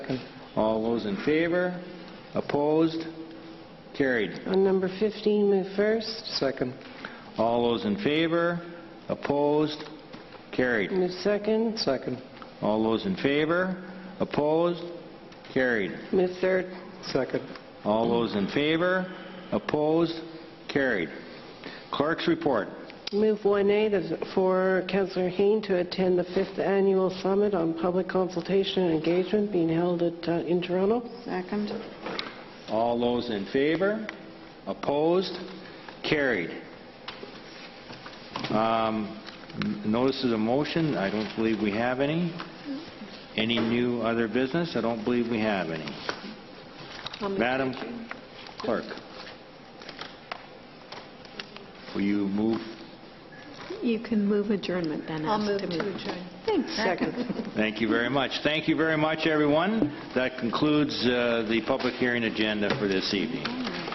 second. All those in favor? Opposed? Carried. On number 15, move first. Second. All those in favor? Opposed? Carried. Move second. Second. All those in favor? Opposed? Carried. Move third. Second. All those in favor? Opposed? Carried. Clerk's report. Move 1A to- for Councillor Hain to attend the fifth annual summit on public consultation and engagement being held at, uh, in Toronto. Second. All those in favor? Opposed? Carried. Um, n- Notices of motion, I don't believe we have any. Any new other business? I don't believe we have any. Madam Clerk, will you move? You can move adjournment then. I'll as move to to adjourn. Thanks. Thank you very much. Thank you very much, everyone. That concludes uh, the public hearing agenda for this evening.